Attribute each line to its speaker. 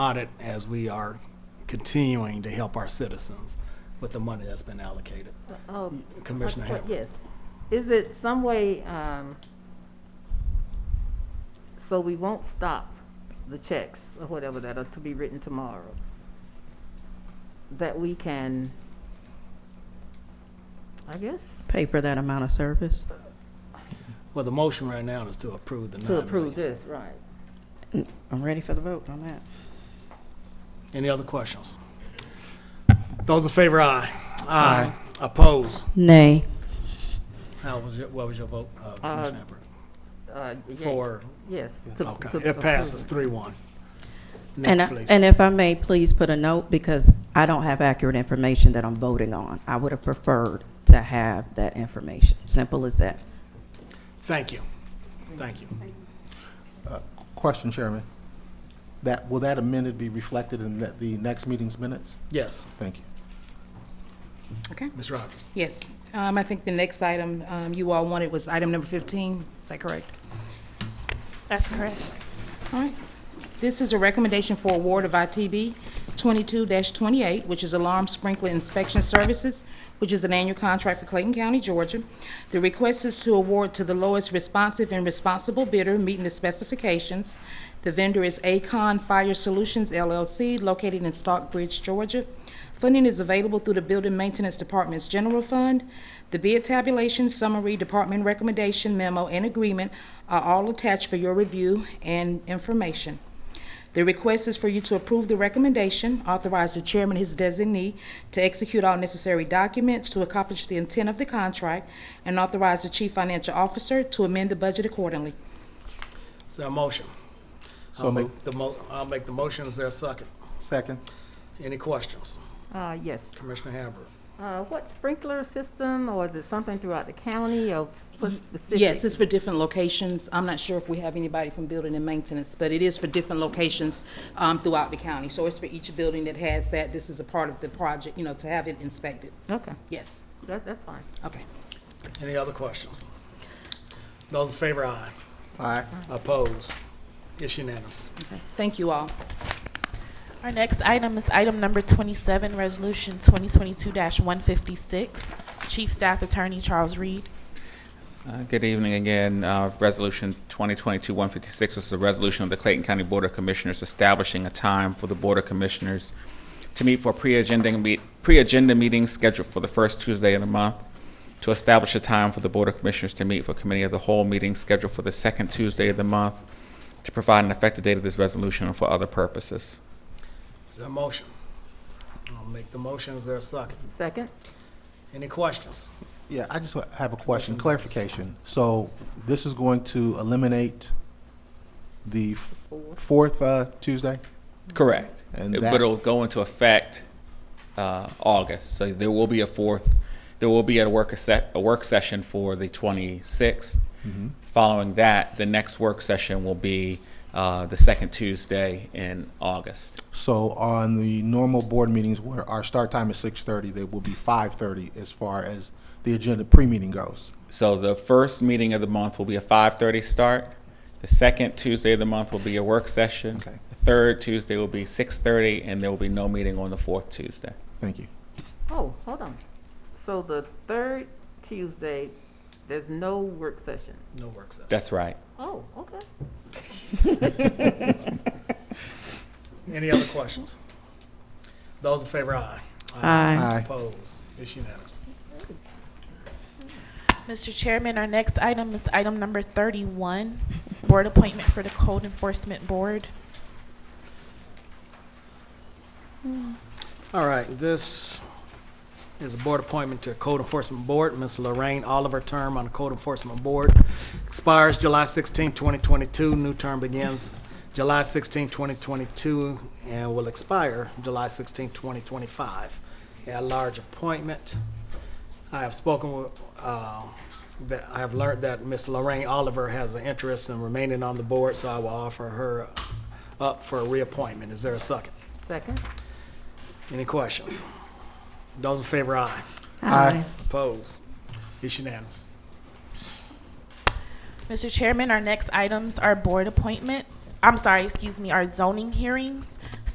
Speaker 1: audit as we are continuing to help our citizens with the money that's been allocated.
Speaker 2: Oh,
Speaker 1: Commissioner
Speaker 2: what- what-
Speaker 1: Hammer.
Speaker 2: Yes. Is it some way, um, so we won't stop the checks or whatever that are to be written tomorrow? That we can, I guess,
Speaker 3: pay for that amount of service.
Speaker 1: Well, the motion right now is to approve the nine
Speaker 2: to
Speaker 1: million.
Speaker 2: approve this, right?
Speaker 3: I'm ready for the vote on that.
Speaker 1: Any other questions? Those in favor, aye. Aye. Oppose.
Speaker 3: Nay.
Speaker 1: How was your, what was your vote, uh, Commissioner Hammer?
Speaker 2: Uh, yea-
Speaker 1: For,
Speaker 2: Yes. to- to
Speaker 1: okay, it
Speaker 2: approve
Speaker 1: passes
Speaker 2: it.
Speaker 1: three one.
Speaker 3: And,
Speaker 1: Next,
Speaker 3: I-
Speaker 1: please.
Speaker 3: and if I may, please put a note, because I don't have accurate information that I'm voting on. I would have preferred to have that information. Simple as that.
Speaker 1: Thank you. Thank you.
Speaker 4: Question, Chairman. That, will that amended be reflected in the- the next meeting's minutes?
Speaker 1: Yes,
Speaker 4: Thank you.
Speaker 5: Okay,
Speaker 1: Ms. Rogers.
Speaker 5: yes. Um, I think the next item um, you all wanted was item number 15. Is that correct?
Speaker 6: That's correct.
Speaker 5: All right. This is a recommendation for award of ITB 22-28, which is Alarm Sprinkler Inspection Services, which is an annual contract for Clayton County, Georgia. The request is to award to the lowest responsive and responsible bidder meeting the specifications. The vendor is Acon Fire Solutions LLC, located in Stockbridge, Georgia. Funding is available through the Building Maintenance Department's General Fund. The bid tabulation, summary, department recommendation memo, and agreement are all attached for your review and information. The request is for you to approve the recommendation, authorize the chairman, his designee, to execute all necessary documents to accomplish the intent of the contract, and authorize the chief financial officer to amend the budget accordingly.
Speaker 1: Is there a motion?
Speaker 4: So
Speaker 1: I'll make
Speaker 4: moved.
Speaker 1: the mo, I'll make the motion. Is there a second?
Speaker 4: Second.
Speaker 1: Any questions?
Speaker 2: Uh, yes.
Speaker 1: Commissioner Hammer.
Speaker 2: Uh, what sprinkler system, or is it something throughout the county, or what's specific?
Speaker 5: Yes, it's for different locations. I'm not sure if we have anybody from building and maintenance, but it is for different locations um, throughout the county. So it's for each building that has that. This is a part of the project, you know, to have it inspected.
Speaker 2: Okay,
Speaker 5: Yes,
Speaker 2: that, that's fine.
Speaker 5: okay.
Speaker 1: Any other questions? Those in favor, aye.
Speaker 4: Aye.
Speaker 1: Opposed? It's unanimous.
Speaker 5: Thank you all.
Speaker 6: Our next item is item number 27, Resolution 2022-156. Chief Staff Attorney Charles Reed.
Speaker 7: Uh, Good evening again. Uh, Resolution 2022-156 is the resolution of the Clayton County Board of Commissioners establishing a time for the Board of Commissioners to meet for pre-agenda, meet- pre-agenda meetings scheduled for the first Tuesday of the month, to establish a time for the Board of Commissioners to meet for committee of the whole meetings scheduled for the second Tuesday of the month, to provide an effective date of this resolution and for other purposes.
Speaker 1: Is there a motion? I'll make the motion. Is there a second?
Speaker 2: Second?
Speaker 1: Any questions?
Speaker 4: Yeah, I just wa- have a question, clarification. So this is going to eliminate the f- fourth uh, Tuesday?
Speaker 7: Correct.
Speaker 4: And
Speaker 7: It-
Speaker 4: that-
Speaker 7: But it'll go into effect uh, August, so there will be a fourth, there will be a work, se- a work session for the 26th.
Speaker 4: Mm-hmm.
Speaker 7: Following that, the next work session will be uh, the second Tuesday in August.
Speaker 4: So on the normal board meetings where our start time is 6:30, they will be 5:30 as far as the agenda pre-meeting goes.
Speaker 7: So the first meeting of the month will be a 5:30 start, the second Tuesday of the month will be a work session.
Speaker 4: Okay.
Speaker 7: The third Tuesday will be 6:30, and there will be no meeting on the fourth Tuesday.
Speaker 4: Thank you.
Speaker 2: Oh, hold on. So the third Tuesday, there's no work session.
Speaker 1: No work session.
Speaker 7: That's right.
Speaker 2: Oh, okay.
Speaker 1: Any other questions? Those in favor, aye.
Speaker 3: Aye.
Speaker 4: Aye.
Speaker 1: Opposed? It's unanimous.
Speaker 6: Mr. Chairman, our next item is item number 31, Board Appointment for the Code Enforcement Board.
Speaker 1: All right, this is a board appointment to Code Enforcement Board. Ms. Lorraine Oliver, term on the Code Enforcement Board expires July 16, 2022. New term begins July 16, 2022, and will expire July 16, 2025. At-large appointment. I have spoken with, uh, that, I have learned that Ms. Lorraine Oliver has an interest in remaining on the board, so I will offer her up for a reappointment. Is there a second?
Speaker 2: Second?
Speaker 1: Any questions? Those in favor, aye.
Speaker 4: Aye.
Speaker 1: Opposed? It's unanimous.
Speaker 6: Mr. Chairman, our next items are board appointments, I'm sorry, excuse me, our zoning hearings.